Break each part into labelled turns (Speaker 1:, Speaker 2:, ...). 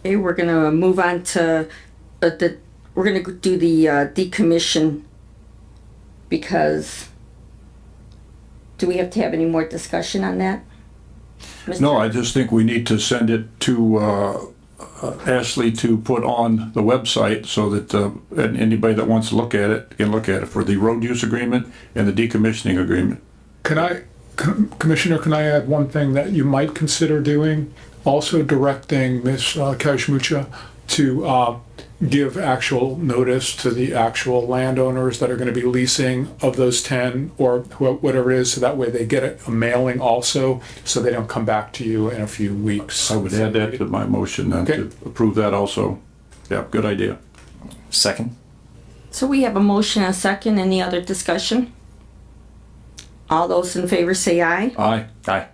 Speaker 1: Okay, we're gonna move on to, uh, the, we're gonna do the, uh, decommission. Because, do we have to have any more discussion on that?
Speaker 2: No, I just think we need to send it to uh, Ashley to put on the website so that uh, an- anybody that wants to look at it can look at it for the road use agreement and the decommissioning agreement.
Speaker 3: Can I, Com- Commissioner, can I add one thing that you might consider doing? Also directing Ms. uh, Kashmucha to uh, give actual notice to the actual landowners that are going to be leasing of those 10 or wh- whatever it is, so that way they get a mailing also, so they don't come back to you in a few weeks.
Speaker 2: I would add that to my motion then to
Speaker 3: Okay.
Speaker 2: approve that also. Yeah, good idea.
Speaker 4: Second?
Speaker 1: So we have a motion and a second, any other discussion? All those in favor say aye.
Speaker 2: Aye.
Speaker 4: Aye.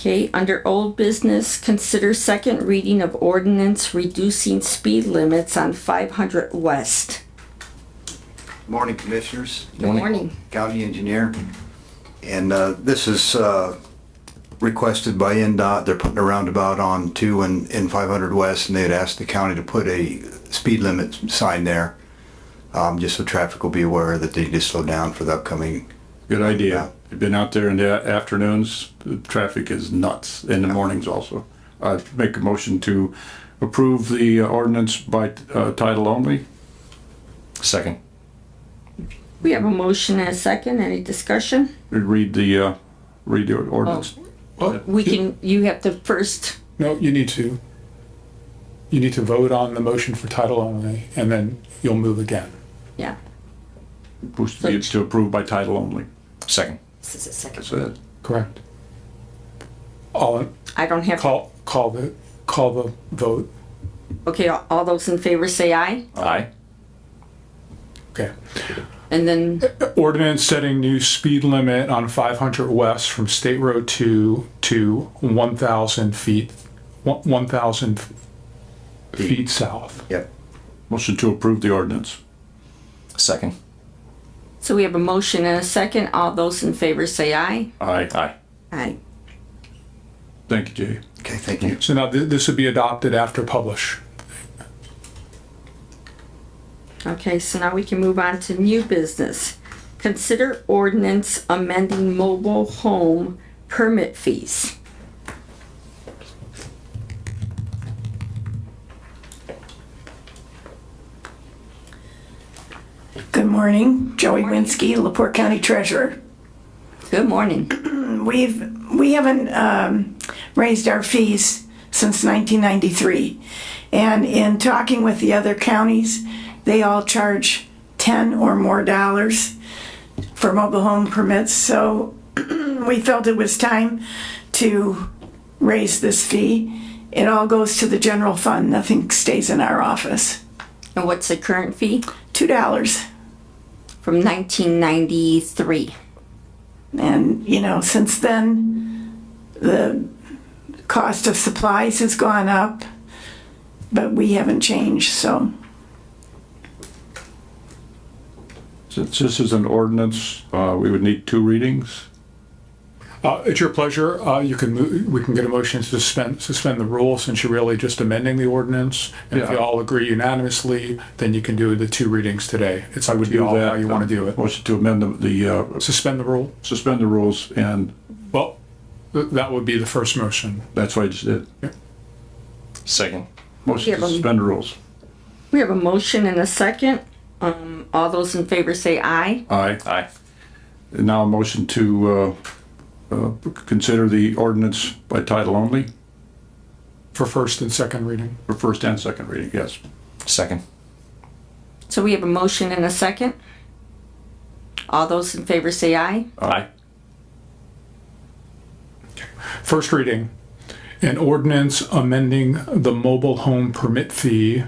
Speaker 1: Okay, under old business, consider second reading of ordinance reducing speed limits on five hundred west.
Speaker 5: Morning, Commissioners.
Speaker 1: Good morning.
Speaker 5: County Engineer. And uh, this is uh, requested by NDOT. They're putting a roundabout on two and, and 500 West, and they had asked the county to put a speed limit sign there, um, just so traffic will be aware that they need to slow down for the upcoming.
Speaker 2: Good idea. You've been out there in the afternoons, the traffic is nuts, in the mornings also. I make a motion to approve the ordinance by uh, title only.
Speaker 4: Second?
Speaker 1: We have a motion and a second, any discussion?
Speaker 2: Read the, uh, read the ordinance.
Speaker 3: Well,
Speaker 1: We
Speaker 3: you-
Speaker 1: can, you have to first,
Speaker 3: No, you need to, you need to vote on the motion for title only, and then you'll move again.
Speaker 1: yeah.
Speaker 2: Push the- to approve by title only.
Speaker 4: Second?
Speaker 1: This is a second.
Speaker 2: That's it.
Speaker 3: Correct. All, in-
Speaker 1: I don't have,
Speaker 3: call, call the, call the vote.
Speaker 1: okay, all all those in favor say aye,
Speaker 4: Aye.
Speaker 3: Okay.
Speaker 1: and then,
Speaker 3: Ordinance setting new speed limit on 500 West from State Road 2 to 1,000 feet, one- 1,000 feet south.
Speaker 5: Yep.
Speaker 2: Motion to approve the ordinance.
Speaker 4: Second?
Speaker 1: so we have a motion and a second, all those in favor say aye.
Speaker 2: Aye.
Speaker 4: Aye.
Speaker 1: Aye.
Speaker 2: Thank you, Jay.
Speaker 5: Okay, thank you.
Speaker 3: So now th- this would be adopted after publish.
Speaker 1: Okay, so now we can move on to new business. Consider ordinance amending mobile home permit fees.
Speaker 6: Good morning, Joey Winsky, Laporte County Treasurer.
Speaker 1: Good morning.
Speaker 6: We've, we haven't um, raised our fees since 1993. And in talking with the other counties, they all charge 10 or more dollars for mobile home permits. So we felt it was time to raise this fee. It all goes to the general fund, nothing stays in our office.
Speaker 1: And what's the current fee?
Speaker 6: $2.
Speaker 1: From nineteen ninety-three.
Speaker 6: And, you know, since then, the cost of supplies has gone up, but we haven't changed, so.
Speaker 2: Since this is an ordinance, uh, we would need two readings.
Speaker 3: Uh, It's your pleasure. Uh, You can, move. we can get a motion to suspend, suspend the rule since you're really just amending the ordinance. And if you
Speaker 2: Yeah.
Speaker 3: all agree unanimously, then you can do the two readings today. It's up to you all how you want to do it.
Speaker 2: Motion to amend the- the, uh,
Speaker 3: Suspend the rule?
Speaker 2: suspend the rules, and
Speaker 3: Well, th- that would be the first motion.
Speaker 2: that's what I just did.
Speaker 4: Second?
Speaker 2: Motion
Speaker 1: Yeah,
Speaker 2: to
Speaker 1: but-
Speaker 2: suspend the rules.
Speaker 1: We have a motion and a second. Um, all those in favor say aye.
Speaker 2: Aye.
Speaker 4: Aye.
Speaker 2: And now a motion to, uh, uh, consider the ordinance by title only
Speaker 3: for first and second reading.
Speaker 2: for first and second reading, yes.
Speaker 4: Second?
Speaker 1: So we have a motion and a second. All those in favor say aye.
Speaker 4: Aye.
Speaker 3: First reading, an ordinance amending the mobile home permit fee,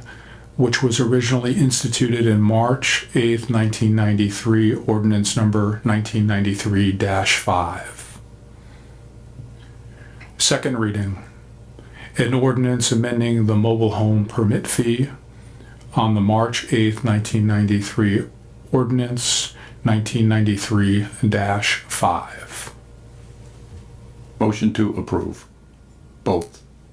Speaker 3: which was originally instituted in March 8th, 1993, ordinance number 1993-5. Second reading, an ordinance amending the mobile home permit fee on the March 8th, 1993, ordinance 1993-5.
Speaker 2: Motion to approve, both.